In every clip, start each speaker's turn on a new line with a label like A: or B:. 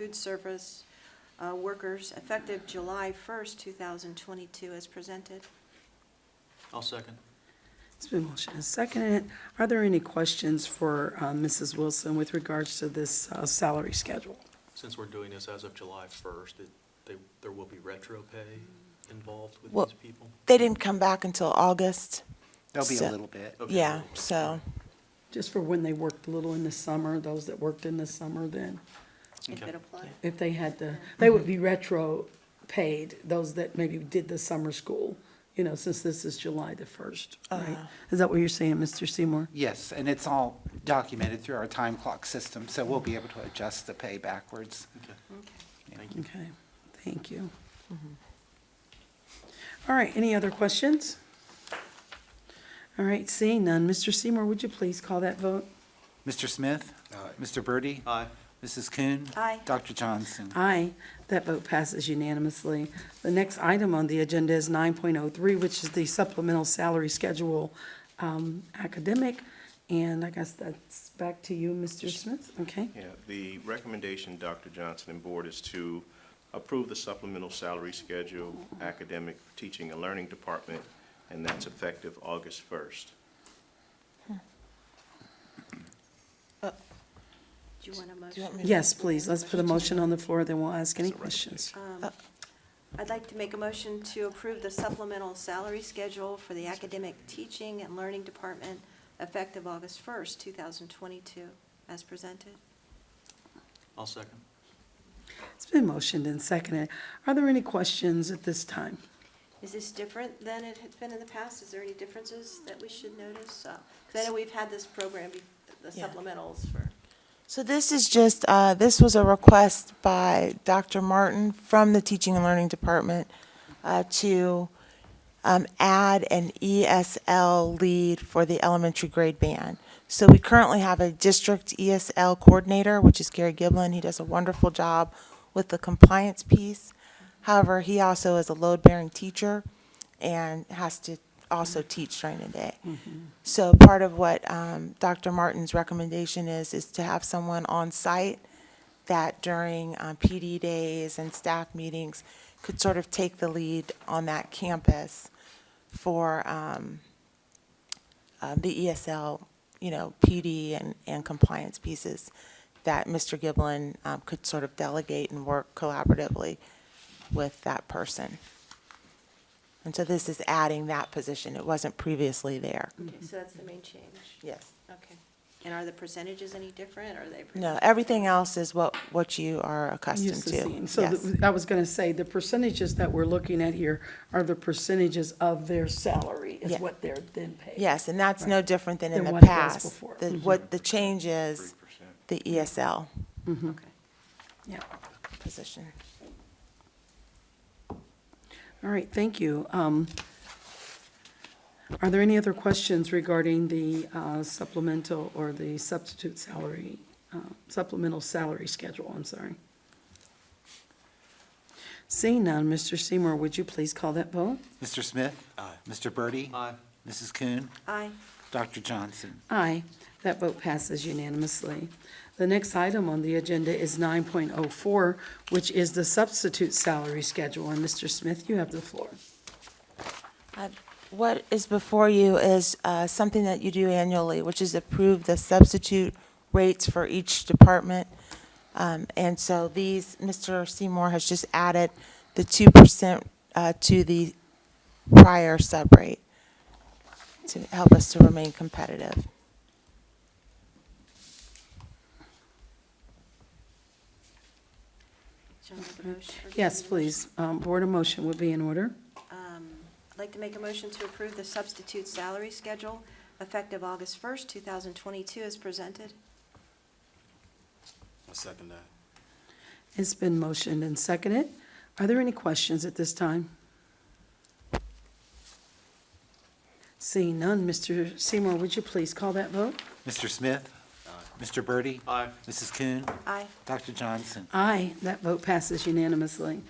A: food service uh, workers effective July 1st, 2022, as presented.
B: I'll second.
C: It's been motioned and seconded. Are there any questions for uh, Mrs. Wilson with regards to this uh, salary schedule?
B: Since we're doing this as of July 1st, it- they- there will be retro pay involved with
D: Well-
B: these people?
D: They didn't come back until August.
E: There'll be a
D: So-
E: little bit.
B: Okay,
D: Yeah,
B: there will be.
D: so,
C: Just for when they worked a little in the summer, those that worked in the summer then,
A: If
B: Okay.
A: it applies.
C: if they had the, they would be retro paid, those that maybe did the summer school, you know, since this is July the 1st, right? Is that what you're saying, Mr. Seymour?
E: Yes, and it's all documented through our time clock system, so we'll be able to adjust the pay backwards.
B: Okay.
A: Okay.
B: Thank you.
C: Okay, thank you. All right, any other questions? All right, seeing none, Mr. Seymour, would you please call that vote?
E: Mr. Smith? Mr. Birdie,
B: Aye.
E: Mrs. Kuhn?
A: Aye.
E: Dr. Johnson?
C: Aye, that vote passes unanimously. The next item on the agenda is 9.03, which is the supplemental salary schedule um, academic, and I guess that's back to you, Mr. Smith, okay?
F: Yeah, the recommendation, Dr. Johnson and Board, is to approve the supplemental salary schedule academic for teaching and learning department, and that's effective August 1st.
A: Do you want a motion?
D: do you want me to?
C: Yes, please, let's put a motion on the floor, then we'll ask any questions.
A: Um, I'd like to make a motion to approve the supplemental salary schedule for the academic teaching and learning department effective August 1st, 2022, as presented.
B: I'll second.
C: It's been motioned and seconded. Are there any questions at this time?
A: Is this different than it had been in the past? Is there any differences that we should notice? Because I know we've had this program, be- the
D: Yeah.
A: supplementals for,
D: So this is just, uh, this was a request by Dr. Martin from the Teaching and Learning Department uh, to um, add an ESL lead for the elementary grade band. So we currently have a district ESL coordinator, which is Gary Giblin. He does a wonderful job with the compliance piece. However, he also is a load-bearing teacher and has to also teach during the day. So part of what um, Dr. Martin's recommendation is, is to have someone on site that during uh, PD days and staff meetings could sort of take the lead on that campus for um, uh, the ESL, you know, PD and, and compliance pieces that Mr. Giblin um, could sort of delegate and work collaboratively with that person. And so this is adding that position. It wasn't previously there.
A: okay, so that's the main change.
D: Yes.
A: Okay. And are the percentages any different, or are they? pretty-
D: No, everything else is what, what you are accustomed
C: Used to
D: to.
C: seeing. So
D: Yes.
C: the- I was going to say, the percentages that we're looking at here are the percentages of their salary
D: Yeah.
C: is what they're then paid.
D: Yes, and that's no different than in
C: Than
D: the
C: what it was
D: past.
C: before. Mm-hmm.
D: The- What the change is,
F: 3%.
D: the E ESL
A: Okay.
C: Yeah.
D: position.
C: All right, thank you. Um, Are there any other questions regarding the uh, supplemental or the substitute salary, uh, supplemental salary schedule, I'm sorry? Seeing none, Mr. Seymour, would you please call that vote?
E: Mr. Smith?
B: Aye.
E: Mr. Birdie,
B: Aye.
E: Mrs. Kuhn?
A: Aye.
E: Dr. Johnson?
C: Aye. That vote passes unanimously. The next item on the agenda is 9.04, which is the substitute salary schedule. And Mr. Smith, you have the floor.
D: Uh, What is before you is uh, something that you do annually, which is approve the substitute rates for each department. Um, And so these, Mr. Seymour has just added the 2% uh, to the prior sub rate to help us to remain competitive.
A: Shall I make a motion?
C: Yes, please. Um, Board of motion would be in order.
A: I'd like to make a motion to approve the substitute salary schedule effective August 1st, 2022, as presented.
G: I second that.
C: It's been motioned and seconded. Are there any questions at this time? Seeing none, Mr. Seymour, would you please call that vote?
E: Mr. Smith? Mr. Birdie,
B: Aye.
E: Mrs. Kuhn?
A: Aye.
E: Dr. Johnson?
C: Aye. That vote passes unanimously.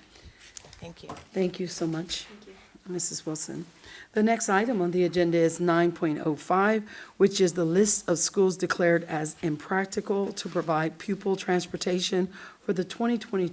D: Thank you.
C: Thank you so much.
A: Thank you.
C: Mrs. Wilson. The next item on the agenda is 9.05, which is the list of schools declared as impractical to provide pupil transportation for for the 2022